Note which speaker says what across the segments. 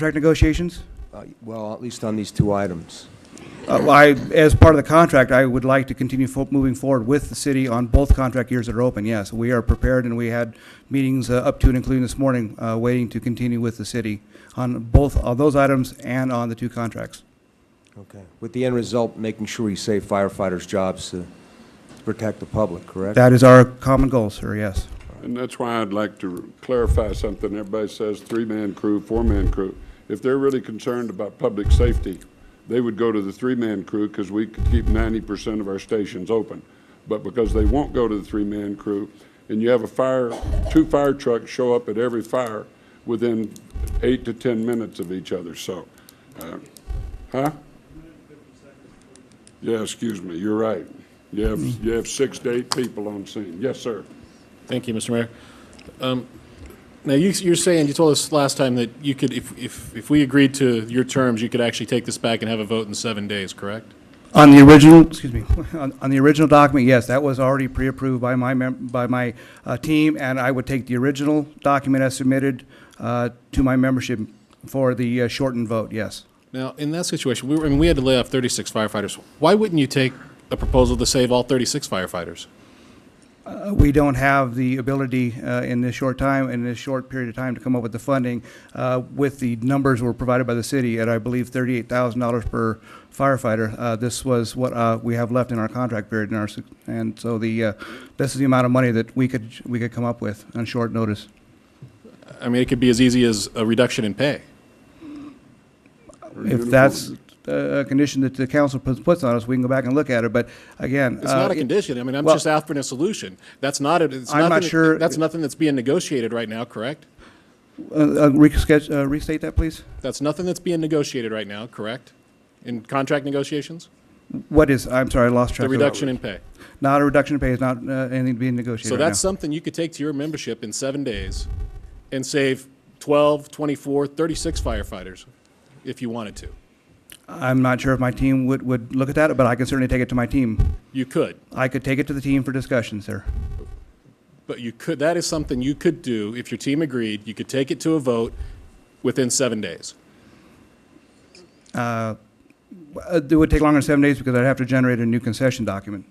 Speaker 1: contract negotiations?
Speaker 2: Uh, Well, at least on these two items.
Speaker 1: Uh, well, I, as part of the contract, I would like to continue fo- moving forward with the city on both contract years that are open, yes. We are prepared, and we had meetings uh, up to and including this morning, uh, waiting to continue with the city on both of those items and on the two contracts.
Speaker 2: Okay. With the end result, making sure we save firefighters' jobs to protect the public, correct?
Speaker 1: That is our common goal, sir, yes.
Speaker 3: And that's why I'd like to clarify something. Everybody says three-man crew, four-man crew. If they're really concerned about public safety, they would go to the three-man crew because we could keep ninety percent of our stations open. But because they won't go to the three-man crew, and you have a fire, two fire trucks show up at every fire within eight to ten minutes of each other, so, uh, huh? Yeah, excuse me, you're right. You have, you have six to eight people on scene. Yes, sir.
Speaker 4: Thank you, Mr. Mayor. Um, Now, you- you're saying, you told us last time that you could, if, if, if we agreed to your terms, you could actually take this back and have a vote in seven days, correct?
Speaker 1: On the original, excuse me, on, on the original document, yes, that was already pre-approved by my mem, by my, uh, team, and I would take the original document as submitted, uh, to my membership for the uh, shortened vote, yes.
Speaker 4: Now, in that situation, we were, and we had to lay off 36 firefighters. Why wouldn't you take a proposal to save all 36 firefighters?
Speaker 1: Uh, We don't have the ability uh, in this short time, in this short period of time, to come up with the funding uh, with the numbers were provided by the city at, I believe, thirty-eight thousand dollars per firefighter. Uh, This was what uh, we have left in our contract period in our, s- and so the, uh, this is the amount of money that we could, we could come up with on short notice.
Speaker 4: I mean, it could be as easy as a reduction in pay.
Speaker 1: If that's uh, a condition that the council puts puts on us, we can go back and look at it, but again.
Speaker 4: It's not
Speaker 1: uh,
Speaker 4: a condition. I mean, I'm
Speaker 1: well-
Speaker 4: just offering a solution. That's not, a- it's
Speaker 1: I'm not
Speaker 4: nothing-
Speaker 1: sure-
Speaker 4: That's nothing that's being negotiated right now, correct?
Speaker 1: uh, uh, reschedule- uh, Restate that, please.
Speaker 4: That's nothing that's being negotiated right now, correct? In contract negotiations?
Speaker 1: What is, I'm sorry, I lost track.
Speaker 4: The
Speaker 1: of it.
Speaker 4: reduction in pay.
Speaker 1: Not a reduction in pay, it's not uh, anything being negotiated
Speaker 4: So
Speaker 1: right
Speaker 4: that's
Speaker 1: now.
Speaker 4: something you could take to your membership in seven days and save 12, 24, 36 firefighters if you wanted to.
Speaker 1: I'm not sure if my team would, would look at that, but I can certainly take it to my team.
Speaker 4: You could,
Speaker 1: I could take it to the team for discussion, sir.
Speaker 4: but you could, that is something you could do if your team agreed. You could take it to a vote within seven days.
Speaker 1: Uh, It would take longer than seven days because I'd have to generate a new concession document.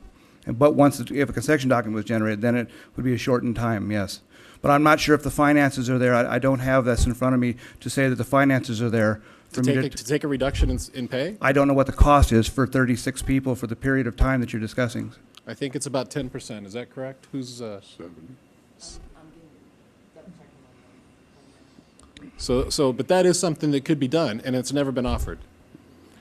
Speaker 1: And- But once, it- if a concession document was generated, then it would be a shortened time, yes. But I'm not sure if the finances are there. I, I don't have this in front of me to say that the finances are there.
Speaker 4: To
Speaker 1: for me
Speaker 4: take, a- to take a reduction in, s- in pay,
Speaker 1: I don't know what the cost is for 36 people for the period of time that you're discussing.
Speaker 4: I think it's about 10%. Is that correct? Who's, uh,
Speaker 3: Seven.
Speaker 4: so, so, but that is something that could be done and it's never been offered.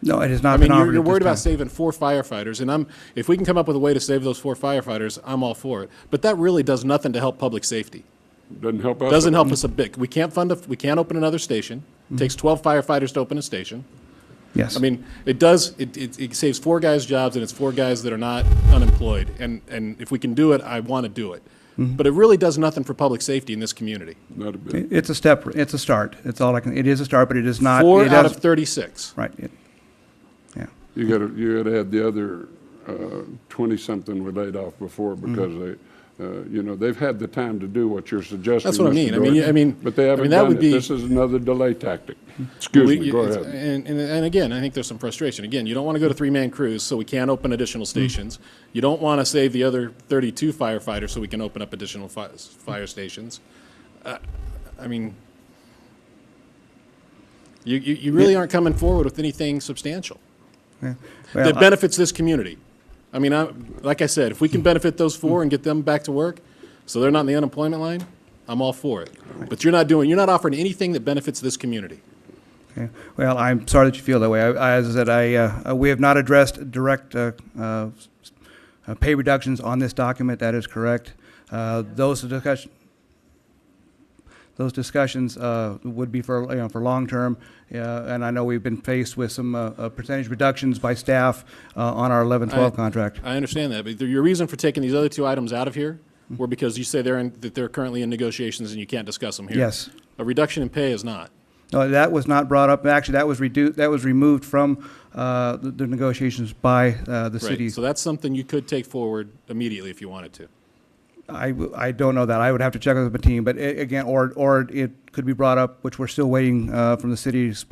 Speaker 1: No, it has
Speaker 4: I
Speaker 1: not
Speaker 4: mean,
Speaker 1: been
Speaker 4: you're,
Speaker 1: offered
Speaker 4: you're
Speaker 1: at
Speaker 4: worried about
Speaker 1: this time.
Speaker 4: saving four firefighters, and I'm, if we can come up with a way to save those four firefighters, I'm all for it. But that really does nothing to help public safety.
Speaker 3: Doesn't help us.
Speaker 4: Doesn't help us a bit. We can't fund, a we can't open another station. Takes
Speaker 1: Mm-hmm.
Speaker 4: 12 firefighters to open a station.
Speaker 1: Yes.
Speaker 4: I mean, it does, it, it, it saves four guys' jobs, and it's four guys that are not unemployed. And, and if we can do it, I want to do it.
Speaker 1: Mm-hmm.
Speaker 4: But it really does nothing for public safety in this community.
Speaker 3: Not a bit.
Speaker 1: It- It's a step, it's a start. It's all I can, it is a start, but it is not.
Speaker 4: Four
Speaker 1: it
Speaker 4: out
Speaker 1: has-
Speaker 4: of 36.
Speaker 1: Right. it- Yeah.
Speaker 3: You gotta, you gotta add the other uh, twenty-something were laid off before
Speaker 4: Mm-hmm.
Speaker 3: because they, uh, you know, they've had the time to do what you're suggesting.
Speaker 4: That's what I
Speaker 3: Mr.
Speaker 4: mean. I mean,
Speaker 3: Gordon,
Speaker 4: I mean-
Speaker 3: But they
Speaker 4: I
Speaker 3: haven't
Speaker 4: mean, that
Speaker 3: done
Speaker 4: would
Speaker 3: it.
Speaker 4: be-
Speaker 3: This is another delay tactic. Excuse
Speaker 4: We-
Speaker 3: me, go
Speaker 4: it's-
Speaker 3: ahead.
Speaker 4: And, and, and again, I think there's some frustration. Again, you don't want to go to three-man crews, so we can't open additional
Speaker 3: Hmm.
Speaker 4: stations. You don't want to save the other 32 firefighters, so we can open up additional fi- fire stations. Uh, I mean, you, you, you really aren't coming forward with anything substantial
Speaker 1: yeah. Well,
Speaker 4: that benefits this community. I mean, I, like I said, if we
Speaker 3: Hmm.
Speaker 4: can benefit those four and get them back to work, so they're not in the unemployment line, I'm all for it. But you're not doing, you're not offering anything that benefits this community.
Speaker 1: Okay. Well, I'm sorry that you feel that way. I, I- as I said, I, uh, uh, we have not addressed direct uh, uh, s- uh, pay reductions on this document. That is correct. Uh, Those discussion, those discussions uh, would be for, you know, for long-term. uh, And I know we've been faced with some uh, uh, percentage reductions by staff uh, on our 11-12
Speaker 4: I-
Speaker 1: contract.
Speaker 4: I understand that, but the- your reason for taking these other two items out of here were because you say they're in, that they're currently in negotiations and you can't discuss them here.
Speaker 1: Yes.
Speaker 4: A reduction in pay is not.
Speaker 1: No, that was not brought up. Actually, that was reduced, that was removed from uh, the the negotiations by uh, the
Speaker 4: Right.
Speaker 1: city.
Speaker 4: So that's something you could take forward immediately if you wanted to.
Speaker 1: I, w- I don't know that. I would have to check with the team, but a- again, or, or it could be brought up, which we're still waiting uh, from the city's